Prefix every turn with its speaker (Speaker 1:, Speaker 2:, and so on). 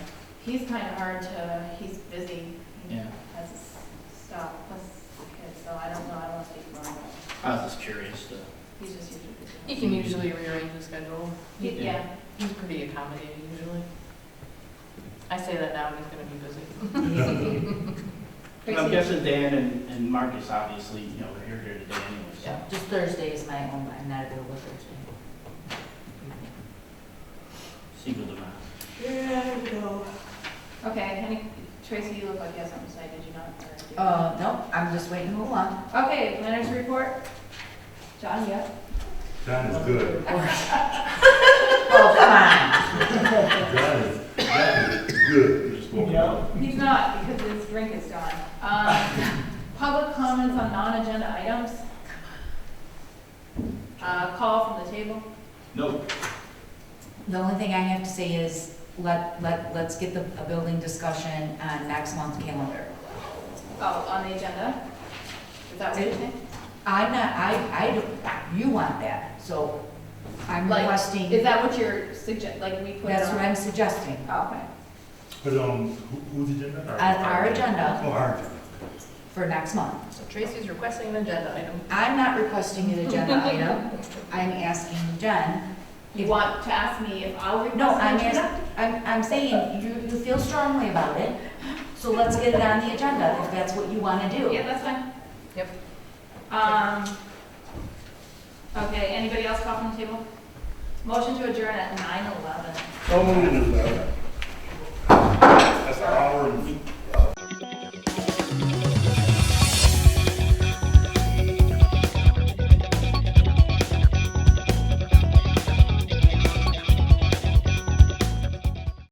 Speaker 1: He's kind of hard to, he's busy. He
Speaker 2: Yeah.
Speaker 1: Has his stuff, plus kids, so I don't know, I don't want to speak for him, but
Speaker 2: I was just curious to.
Speaker 1: he's just usually
Speaker 3: He can usually rearrange his schedule.
Speaker 1: busy. He- Yeah,
Speaker 3: He's pretty accommodating usually. I say that now, and he's gonna be busy.
Speaker 2: I'm guessing Dan and, and Marcus, obviously, you know, they're here here today
Speaker 3: Yeah.
Speaker 2: anyways.
Speaker 4: Just Thursday is my own, I'm not available Thursday.
Speaker 2: Single to mass.
Speaker 4: Yeah, I know.
Speaker 1: okay, any, Tracy, you look like you have something to say, did you not? or did you?
Speaker 4: Uh, no, I'm just waiting, hold on.
Speaker 1: Okay, planners report. John, yeah?
Speaker 5: John is good.
Speaker 4: Oh, come
Speaker 5: John is, John is good. He just woke up.
Speaker 1: He's not, because his drink is gone. Um, Public comments on non-agenda items. Uh, Call from the table.
Speaker 2: No,
Speaker 4: on. The only thing I have to say is, let, let, let's get the, a building discussion on next month's calendar.
Speaker 1: Oh, on the agenda? Is that what you're saying?
Speaker 4: I'm not, I, I, don't- you want that, so I'm
Speaker 1: Like,
Speaker 4: requesting,
Speaker 1: Is that what you're suggest, like we put it
Speaker 4: that's what
Speaker 1: on?
Speaker 4: I'm oh, suggesting.
Speaker 1: Okay.
Speaker 5: But, um, who, who's agenda?
Speaker 4: On Uh, our agenda
Speaker 5: Oh, our agenda.
Speaker 4: for next month.
Speaker 3: So Tracy's requesting an agenda item.
Speaker 4: I'm not requesting an agenda item, I'm asking Jen.
Speaker 1: You
Speaker 4: if-
Speaker 1: want to ask me if I'll request?
Speaker 4: No, I'm
Speaker 1: an agenda?
Speaker 4: asking, I'm, I'm saying, you, you feel strongly about it, so let's get it on the agenda, if that's what you wanna do.
Speaker 1: Yeah, that's fine.
Speaker 3: Yep.
Speaker 1: Um, okay, anybody else call from the table? Motion to adjourn at nine eleven.
Speaker 5: So moved.